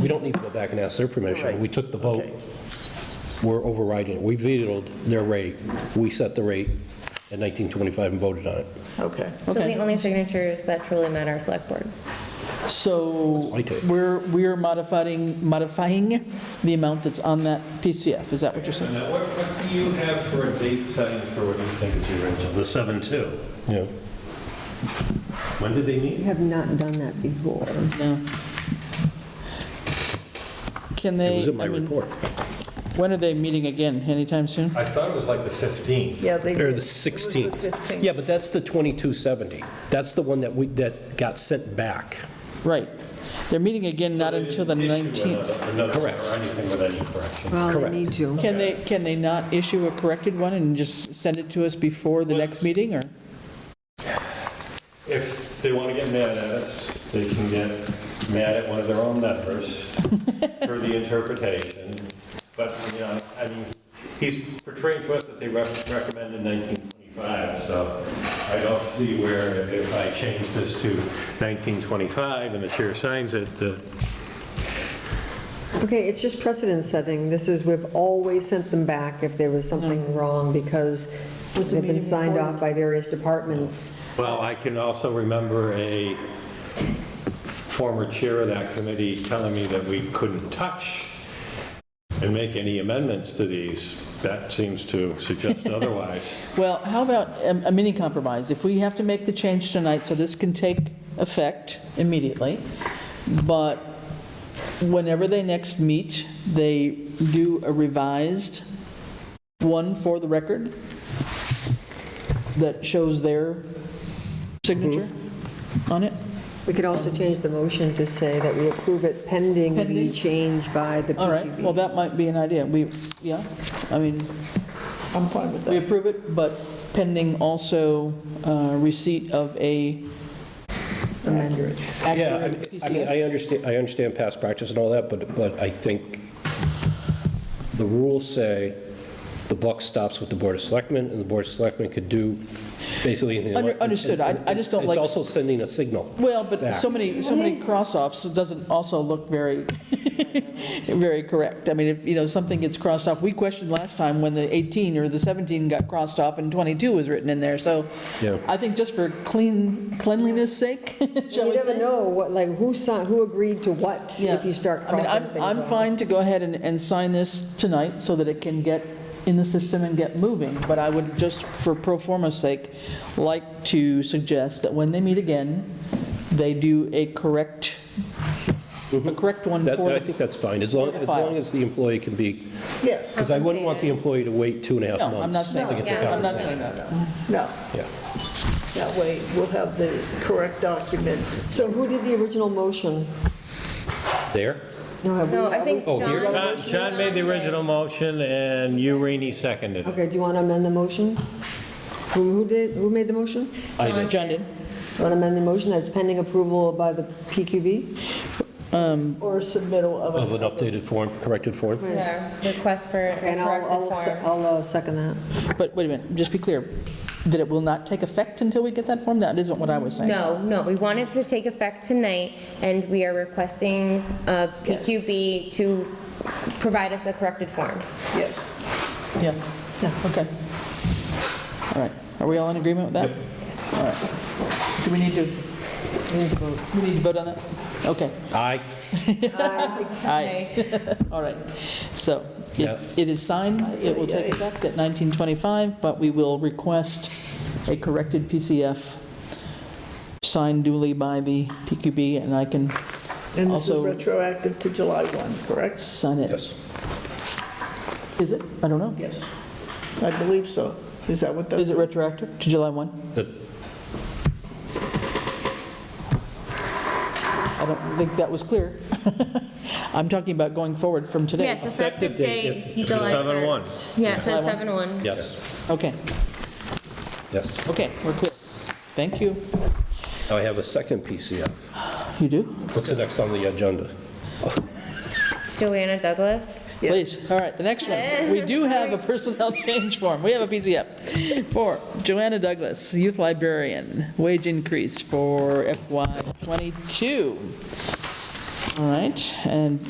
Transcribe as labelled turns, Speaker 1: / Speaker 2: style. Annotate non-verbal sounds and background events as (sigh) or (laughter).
Speaker 1: we don't need to go back and ask their permission.
Speaker 2: Right.
Speaker 1: We took the vote.
Speaker 2: Okay.
Speaker 1: We're overriding it. We vetoed their rate. We set the rate at 1925 and voted on it.
Speaker 2: Okay,
Speaker 3: So the
Speaker 2: okay.
Speaker 3: only signatures that truly matter are select board.
Speaker 2: So
Speaker 1: my take.
Speaker 2: we're, we're modifying, modifying the amount that's on that PCF, is that what you're saying?
Speaker 4: Now, what, what do you have for a date setting for what you think is the original? The seven two.
Speaker 1: Yeah.
Speaker 4: When did they
Speaker 5: We
Speaker 4: meet?
Speaker 5: have not done that before.
Speaker 2: No. Can
Speaker 1: It was
Speaker 2: they,
Speaker 1: in my
Speaker 2: I mean,
Speaker 1: report.
Speaker 2: when are they meeting again? Anytime soon?
Speaker 4: I thought it was like the 15th.
Speaker 6: Yeah, they did.
Speaker 1: Or
Speaker 6: It
Speaker 1: the
Speaker 6: was
Speaker 1: 16th.
Speaker 6: 15th.
Speaker 1: Yeah, but that's the 2270. That's the one that we, that got sent back.
Speaker 2: Right. They're meeting again not
Speaker 4: They didn't
Speaker 2: until the
Speaker 4: issue
Speaker 2: 19th.
Speaker 4: another- another
Speaker 1: Correct.
Speaker 4: Or anything with any correction.
Speaker 5: Well, they
Speaker 1: Correct.
Speaker 5: need to.
Speaker 2: Can they, can they not issue a corrected one and just send it to us before the next meeting, or?
Speaker 4: If they want to get mad at us, they can get mad at one of their own members for the interpretation. But, you know, I mean, he's portraying to us that they re- recommended 1925, so I don't see where if I change this to 1925 and the chair signs it, the
Speaker 5: Okay, it's just precedent setting. This is, we've always sent them back if there was
Speaker 2: Mm-hmm.
Speaker 5: something wrong because they've been signed off by various departments.
Speaker 4: Well, I can also remember a former chair of that committee telling me that we couldn't touch and make any amendments to these. That seems to suggest otherwise.
Speaker 2: Well, how about a a mini compromise? If we have to make the change tonight, so this can take effect immediately, but whenever they next meet, they do a revised one for the record that shows their signature
Speaker 6: Mm-hmm.
Speaker 2: on it?
Speaker 5: We could also change the motion to say that we approve it pending the
Speaker 2: Mm-hmm. Pending?
Speaker 5: change by the
Speaker 2: All right, well,
Speaker 5: PQB.
Speaker 2: that might be an idea. We, yeah, I mean,
Speaker 6: I'm fine with
Speaker 2: we
Speaker 6: that.
Speaker 2: approve it, but pending also uh, receipt of a
Speaker 6: Accurate.
Speaker 1: Yeah, I
Speaker 2: accurate
Speaker 1: mean- I mean,
Speaker 2: PCF.
Speaker 1: I understand, I understand past practice and all that, but, but I think the rules say the buck stops with the Board of Selectmen, and the Board of Selectmen could do basically anything. they
Speaker 2: Under-
Speaker 1: want.
Speaker 2: understood. I- I just don't like-
Speaker 1: It's also sending a signal.
Speaker 2: Well, but
Speaker 1: Back.
Speaker 2: so many, so many cross-offs, it doesn't also look very, (laughs) very correct. I mean, if, you know, something gets crossed off, we questioned last time when the 18 or the 17 got crossed off and 22 was written in there, so
Speaker 1: Yeah.
Speaker 2: I think just for clean, cleanliness sake, (laughs) (laughs) shall
Speaker 5: You
Speaker 2: we
Speaker 5: never
Speaker 2: say?
Speaker 5: know what, like, who signed, who agreed to what if
Speaker 2: Yeah.
Speaker 5: you start
Speaker 2: I mean,
Speaker 5: crossing
Speaker 2: I'm-
Speaker 5: things
Speaker 2: I'm
Speaker 5: off.
Speaker 2: fine to go ahead and, and sign this tonight so that it can get in the system and get moving, but I would just, for pro forma's sake, like to suggest that when they meet again, they do a correct, a correct one
Speaker 1: Mm-hmm. That,
Speaker 2: for
Speaker 1: I
Speaker 2: the...
Speaker 1: think that's fine, as long,
Speaker 2: for the
Speaker 1: as long
Speaker 2: files.
Speaker 1: as the employee can be,
Speaker 6: Yes,
Speaker 1: because I wouldn't want the employee to wait two and a half months.
Speaker 2: No, I'm not saying,
Speaker 1: to get their
Speaker 2: I'm not
Speaker 1: compensation.
Speaker 2: saying that.
Speaker 6: no,
Speaker 1: Yeah.
Speaker 6: that way we'll have the correct document.
Speaker 5: So who did the original motion?
Speaker 1: There?
Speaker 5: No, have we-
Speaker 3: No, I think
Speaker 1: Oh,
Speaker 3: John.
Speaker 1: here?
Speaker 4: John John made the
Speaker 3: did.
Speaker 4: original motion and you, Rainey, seconded it.
Speaker 5: Okay, do you want to amend the motion? Who who did, who made the motion?
Speaker 1: I did.
Speaker 2: John did.
Speaker 5: Want to amend the motion that's pending approval by the PQB?
Speaker 6: Or submittal of.
Speaker 1: Of an updated form, corrected form?
Speaker 3: Yeah, request for a
Speaker 5: And I'll,
Speaker 3: corrected
Speaker 5: I'll se-
Speaker 3: form.
Speaker 5: I'll uh, second that.
Speaker 2: But wait a minute, just be clear, that it will not take effect until we get that form? That isn't what I was saying.
Speaker 3: No, no, we wanted to take effect tonight, and we are requesting uh, PQB to provide us the corrected form.
Speaker 6: Yes.
Speaker 2: Yeah, yeah, okay. All right, are we all in agreement with that? All right. Do we need to, we need to vote on that? Okay,
Speaker 1: Aye.
Speaker 2: aye, (laughs) all right. So it
Speaker 1: Yeah.
Speaker 2: it is signed, it will take effect at 1925, but we will request a corrected PCF signed duly by the PQB, and I can
Speaker 6: And this is
Speaker 2: Also-
Speaker 6: retroactive to July 1, correct?
Speaker 2: sign it.
Speaker 1: Yes.
Speaker 2: Is it? I don't know.
Speaker 6: Yes, I believe so. Is that what that?
Speaker 2: Is it retroactive to July 1?
Speaker 1: The-
Speaker 2: I don't think that was clear. (laughs) I'm talking about going forward from today.
Speaker 3: Yes, effective
Speaker 1: Effective date,
Speaker 3: date,
Speaker 1: yeah.
Speaker 3: July
Speaker 4: 7-1.
Speaker 3: 1st. Yeah, so 7-1.
Speaker 1: Yes,
Speaker 2: Okay,
Speaker 1: yes.
Speaker 2: okay, we're clear. Thank you.
Speaker 1: Now I have a second PCF.
Speaker 2: You do?
Speaker 1: What's the next on the agenda?
Speaker 3: Joanna Douglas.
Speaker 2: Please, all right, the next one. We do have a personnel (laughs) change form. We have a PCF. For Joanna Douglas, youth librarian, wage increase for FY '22. All right, and